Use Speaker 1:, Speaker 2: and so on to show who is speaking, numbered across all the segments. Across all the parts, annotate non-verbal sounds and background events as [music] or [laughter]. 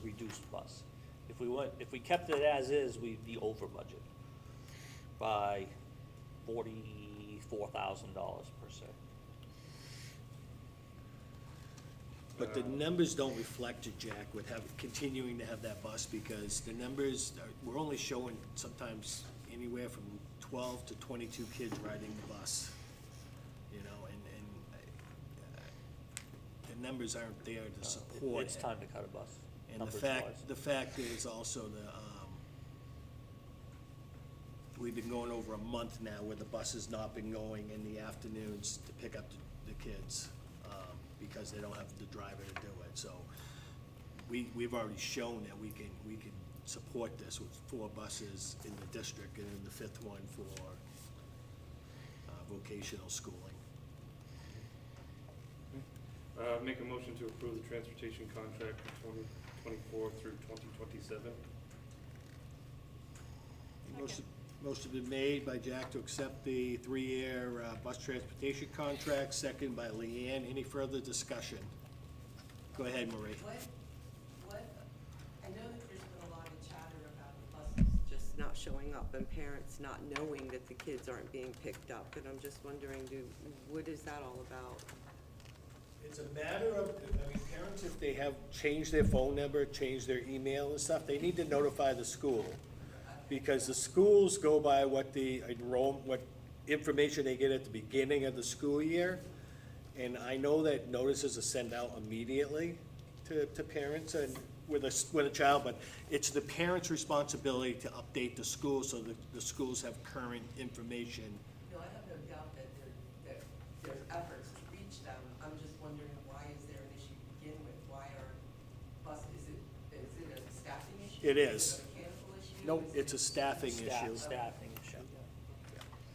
Speaker 1: reduced plus. If we went, if we kept it as is, we'd be over budget by forty-four thousand dollars per se.
Speaker 2: But the numbers don't reflect it, Jack, with have, continuing to have that bus, because the numbers, are- we're only showing sometimes anywhere from twelve to twenty-two kids riding the bus, you know, and, and uh, the numbers aren't there to
Speaker 1: It-
Speaker 2: support
Speaker 1: Uh, It's
Speaker 2: it.
Speaker 1: time to cut a bus,
Speaker 2: And the
Speaker 1: numbers
Speaker 2: fact,
Speaker 1: wise.
Speaker 2: the fact is also the, um, we've been going over a month now where the bus has not been going in the afternoons to pick up the- the kids, um, because they don't have the driver to do it, so we, we've already shown that we can, we can support this with four buses in the district and then the fifth one for, uh, vocational schooling.
Speaker 3: Uh, make a motion to approve the transportation contract for twenty twenty-four through twenty twenty-seven.
Speaker 2: Motion motion been made by Jack to accept the three-year uh, bus transportation contract, second by Leanne. Any further discussion? Go ahead, Marie.
Speaker 4: What, what, I know that there's been a lot of chatter about the buses just not showing up and parents not knowing that the kids aren't being picked up, and I'm just wondering, do, what is that all about?
Speaker 2: It's a matter of, I mean, parents, if they have changed their phone number, changed their email and stuff, they need to notify the school. Because the schools go by what the enroll, what information they get at the beginning of the school year. And I know that notices are sent out immediately to, to parents and with a, s- with a child, but it's the parent's responsibility to update the school so that the schools have current information.
Speaker 4: No, I have no doubt that there, that there's efforts to reach them, I'm just wondering, why is there an issue to begin with? Why are bus, is it, is it a staffing issue?
Speaker 2: It is.
Speaker 4: it a mechanical issue?
Speaker 2: No,
Speaker 4: Is
Speaker 2: it's
Speaker 4: it-
Speaker 2: a staffing issue.
Speaker 1: Staff, staffing issue.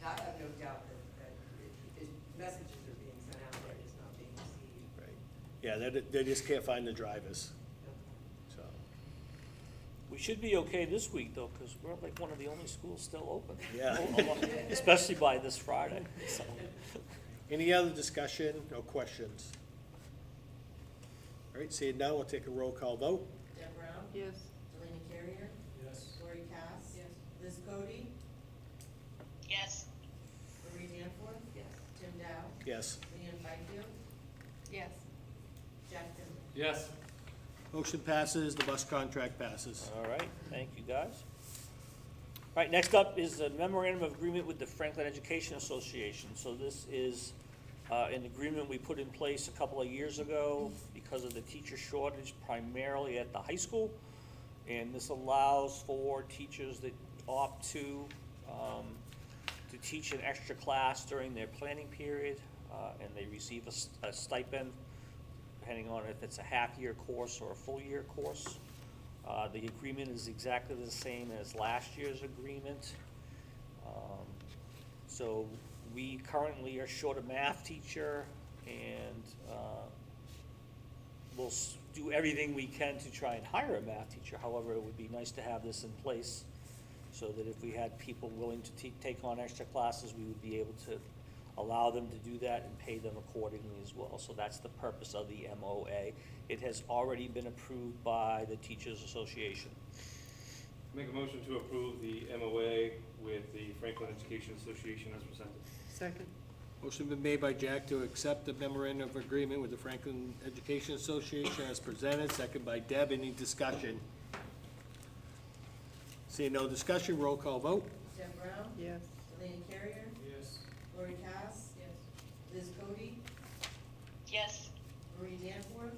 Speaker 4: I have no doubt that, that it- it- messages are being sent out, they're just not being received.
Speaker 2: Right. Yeah, they, they just can't find the drivers, so.
Speaker 1: We should be okay this week though, because we're like one of the only schools still open.
Speaker 2: Yeah.
Speaker 1: [laughs] Especially by this
Speaker 2: [laughs]
Speaker 1: Friday, so.
Speaker 2: Any other discussion or questions? All right, seeing none, we'll take a roll call vote.
Speaker 5: Deb Brown?
Speaker 4: Yes.
Speaker 5: Delaney Carrier?
Speaker 3: Yes.
Speaker 5: Lori Cass?
Speaker 4: Yes.
Speaker 5: Liz Cody?
Speaker 6: Yes.
Speaker 5: Marie Danforth?
Speaker 4: Yes.
Speaker 5: Tim Dow?
Speaker 2: Yes.
Speaker 5: Leanne Byfield?
Speaker 6: Yes.
Speaker 5: Jack Finley?
Speaker 3: Yes.
Speaker 2: Motion passes, the bus contract passes.
Speaker 1: All right, thank you, guys. All right, next up is a memorandum of agreement with the Franklin Education Association. So this is uh, an agreement we put in place a couple of years ago because of the teacher shortage primarily at the high school. And this allows for teachers that opt to, um, to teach an extra class during their planning period, uh, and they receive a s- a stipend depending on if it's a half-year course or a full-year course. Uh, The agreement is exactly the same as last year's agreement. Um, So we currently are short a math teacher, and uh, we'll s- do everything we can to try and hire a math teacher. However, it would be nice to have this in place so that if we had people willing to te- take on extra classes, we would be able to allow them to do that and pay them accordingly as well. So that's the purpose of the MOA. It has already been approved by the Teachers Association.
Speaker 3: Make a motion to approve the MOA with the Franklin Education Association as presented.
Speaker 4: Second?
Speaker 2: Motion been made by Jack to accept the memorandum of agreement with the Franklin Education Association as presented, second by Deb. Any discussion? Seeing no discussion, roll call vote.
Speaker 5: Deb Brown?
Speaker 4: Yes.
Speaker 5: Delaney Carrier?
Speaker 3: Yes.
Speaker 5: Lori Cass?
Speaker 4: Yes.
Speaker 5: Liz Cody?
Speaker 6: Yes.
Speaker 5: Marie Danforth?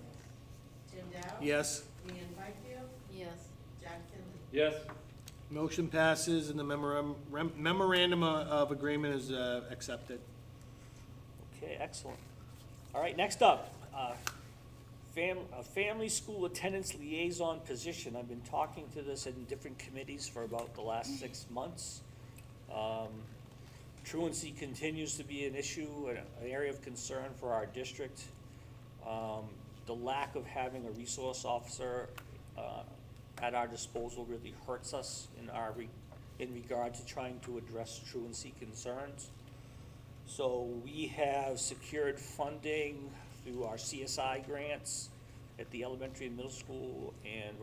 Speaker 5: Tim Dow?
Speaker 2: Yes.
Speaker 5: Leanne Byfield?
Speaker 6: Yes.
Speaker 5: Jack Finley?
Speaker 3: Yes.
Speaker 2: Motion passes and the memoram- rem- memorandum of- of agreement is uh, accepted.
Speaker 1: Okay, excellent. All right, next up, uh, fam, a family school attendance liaison position. I've been talking to this in different committees for about the last six months. Um, truancy continues to be an issue, an, an area of concern for our district. Um, the lack of having a resource officer, uh, at our disposal really hurts us in our, re- in regard to trying to address truancy concerns. So we have secured funding through our CSI grants at the elementary and middle school and